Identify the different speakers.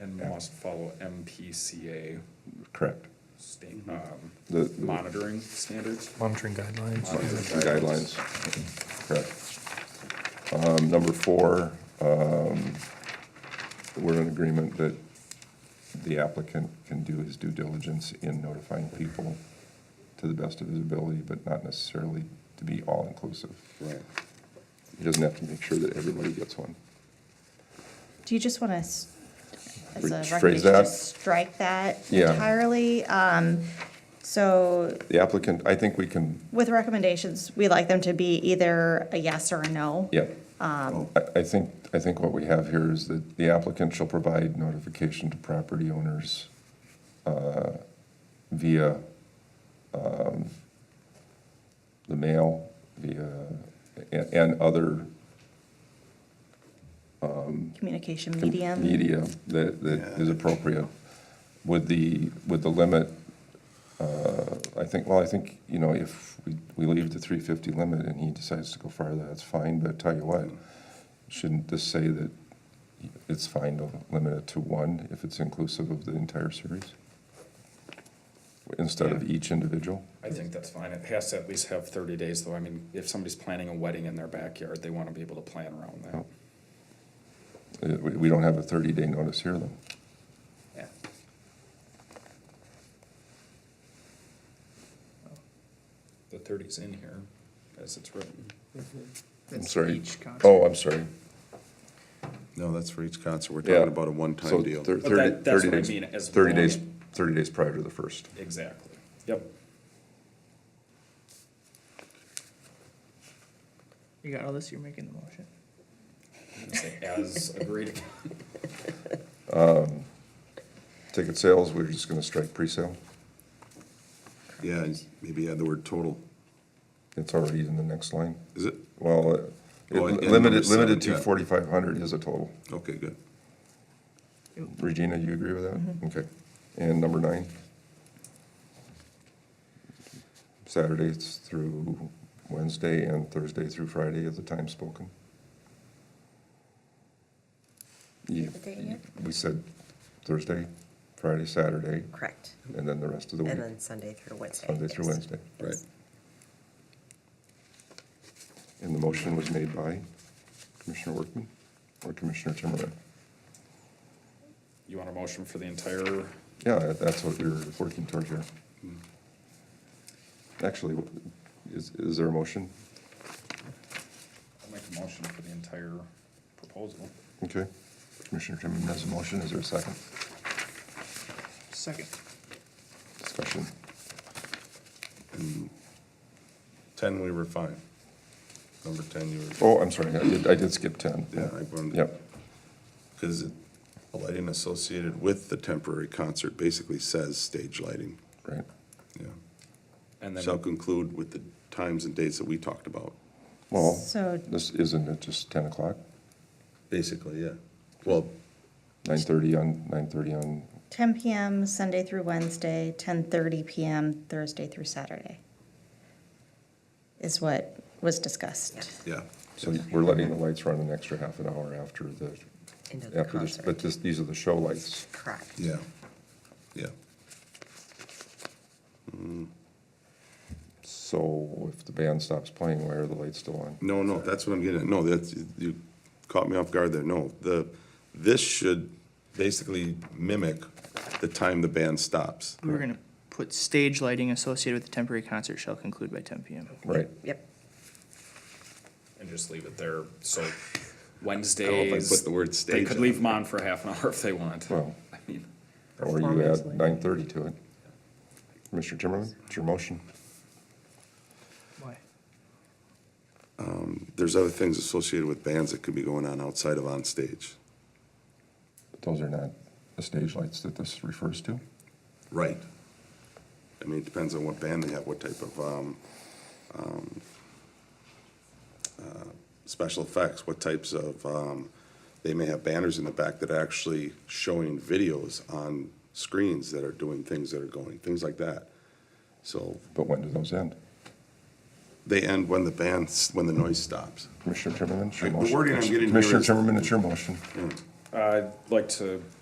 Speaker 1: and
Speaker 2: Yeah.
Speaker 1: must follow MPCA
Speaker 2: correct.
Speaker 1: sta- um,
Speaker 3: The- the-
Speaker 1: monitoring standards.
Speaker 4: monitoring guidelines.
Speaker 3: the guidelines, correct. Um, Number four, um, we're in agreement that the applicant can do his due diligence in notifying people to the best of his ability, but not necessarily to be all-inclusive.
Speaker 5: Right.
Speaker 3: He doesn't have to make sure that everybody gets one.
Speaker 6: Do you just want to, as
Speaker 3: Rephrase
Speaker 6: a recommendation,
Speaker 3: that?
Speaker 6: just strike that
Speaker 3: Yeah.
Speaker 6: entirely? Um, So
Speaker 3: The applicant, I think we can,
Speaker 6: with recommendations, we like them to be either a yes or a no.
Speaker 3: yeah. I, I think, I think what we have here is that the applicant shall provide notification to property owners uh, via um, the mail, via, and, and other
Speaker 6: Communication medium.
Speaker 3: media that, that is appropriate. With the, with the limit, uh, I think, well, I think, you know, if we, we leave the three fifty limit and he decides to go farther, that's fine, but I tell you what, shouldn't this say that it's fine to limit it to one if it's inclusive of the entire series? Instead of each individual?
Speaker 1: I think that's fine. It has to at least have thirty days though. I mean, if somebody's planning a wedding in their backyard, they wanna be able to plan around that.
Speaker 3: Oh. Uh, We, we don't have a thirty-day notice here, though.
Speaker 1: Yeah. The thirty's in here as it's written.
Speaker 3: I'm
Speaker 7: That's
Speaker 3: sorry.
Speaker 7: each contract.
Speaker 3: Oh, I'm sorry.
Speaker 5: No, that's for each concert. We're
Speaker 3: Yeah.
Speaker 5: talking about a one-time deal.
Speaker 3: So thir-
Speaker 1: But
Speaker 3: thirty,
Speaker 1: that- that's
Speaker 3: thirty
Speaker 1: what I
Speaker 3: days.
Speaker 1: mean, as
Speaker 3: Thirty
Speaker 1: long-
Speaker 3: days, thirty days prior to the first.
Speaker 1: Exactly. Yep.
Speaker 7: You got all this, you're making the motion.
Speaker 1: I'm gonna say As agreed.
Speaker 3: Ticket sales, we're just gonna strike pre-sale.
Speaker 5: Yeah, and maybe add the word total.
Speaker 3: It's already in the next line.
Speaker 5: Is it?
Speaker 3: Well, uh, it-
Speaker 5: Oh, and number
Speaker 3: limited,
Speaker 5: seven,
Speaker 3: limited to
Speaker 5: yeah.
Speaker 3: forty-five hundred is a total.
Speaker 5: Okay, good.
Speaker 3: Regina, you agree with
Speaker 1: Mm-hmm.
Speaker 3: that? Okay. And number nine? Saturdays through Wednesday and Thursday through Friday is the time spoken. Yeah,
Speaker 8: the date yet?
Speaker 3: we said Thursday, Friday, Saturday,
Speaker 8: Correct.
Speaker 3: and then the rest of the week,
Speaker 8: And then Sunday through Wednesday.
Speaker 3: Sunday through
Speaker 8: yes.
Speaker 3: Wednesday.
Speaker 5: Right.
Speaker 3: And the motion was made by Commissioner Workman or Commissioner Timmerman?
Speaker 1: You want a motion for the entire,
Speaker 3: Yeah, that- that's what we were working toward here.
Speaker 5: Hmm.
Speaker 3: Actually, is, is there a motion?
Speaker 1: I'll make a motion for the entire proposal.
Speaker 3: Okay. Commissioner Timmerman has a motion. Is there a second?
Speaker 7: Second.
Speaker 3: Discussion.
Speaker 5: Ten, we were fine. Number ten, you were,
Speaker 3: Oh, I'm sorry. I did, I did skip ten.
Speaker 5: yeah, I wanted.
Speaker 3: Yep.
Speaker 5: Because lighting associated with the temporary concert basically says stage lighting,
Speaker 3: Right.
Speaker 5: yeah.
Speaker 1: And
Speaker 5: Shall
Speaker 1: then,
Speaker 5: conclude with the times and dates that we talked about.
Speaker 3: Well,
Speaker 6: So-
Speaker 3: this, isn't it just ten o'clock?
Speaker 5: Basically, yeah. Well,
Speaker 3: Nine thirty on, nine thirty on,
Speaker 6: 10 PM Sunday through Wednesday, 10:30 PM Thursday through Saturday is what was discussed.
Speaker 5: yeah,
Speaker 3: so we're letting the lights run an extra half an hour after the,
Speaker 8: End of the
Speaker 3: after this, but
Speaker 8: concert.
Speaker 3: this, these are the show lights.
Speaker 8: Correct.
Speaker 5: yeah, yeah.
Speaker 3: So if the band stops playing, why are the lights still on?
Speaker 5: No, no, that's what I'm getting at. No, that's, you caught me off guard there. No, the, this should basically mimic the time the band stops.
Speaker 7: We were gonna put stage lighting associated with the temporary concert shall conclude by ten PM.
Speaker 3: Right.
Speaker 8: Yep.
Speaker 1: and just leave it there, so
Speaker 5: I don't know if I
Speaker 1: Wednesdays.
Speaker 5: put the word
Speaker 1: They
Speaker 5: stage
Speaker 1: could
Speaker 5: in
Speaker 1: leave
Speaker 5: it.
Speaker 1: them on for half an hour if they want.
Speaker 3: Well,
Speaker 1: I mean,
Speaker 3: or you
Speaker 7: Performance
Speaker 3: add
Speaker 7: lighting.
Speaker 3: nine thirty to it. Mr. Timmerman, it's your motion.
Speaker 7: Why?
Speaker 5: There's other things associated with bands that could be going on outside of onstage.
Speaker 3: But Those are not the stage lights that this refers to.
Speaker 5: Right. I mean, it depends on what band they have, what type of, um, um, uh, special effects, what types of, um, they may have banners in the back that are actually showing videos on screens that are doing things that are going, things like that. So
Speaker 3: But when do those end?
Speaker 5: they end when the band's, when the noise stops.
Speaker 3: Commissioner Timmerman, it's your
Speaker 5: The
Speaker 3: motion.
Speaker 5: wording I'm getting here
Speaker 3: Commissioner
Speaker 5: is-
Speaker 3: Timmerman, it's your motion.
Speaker 1: I'd like to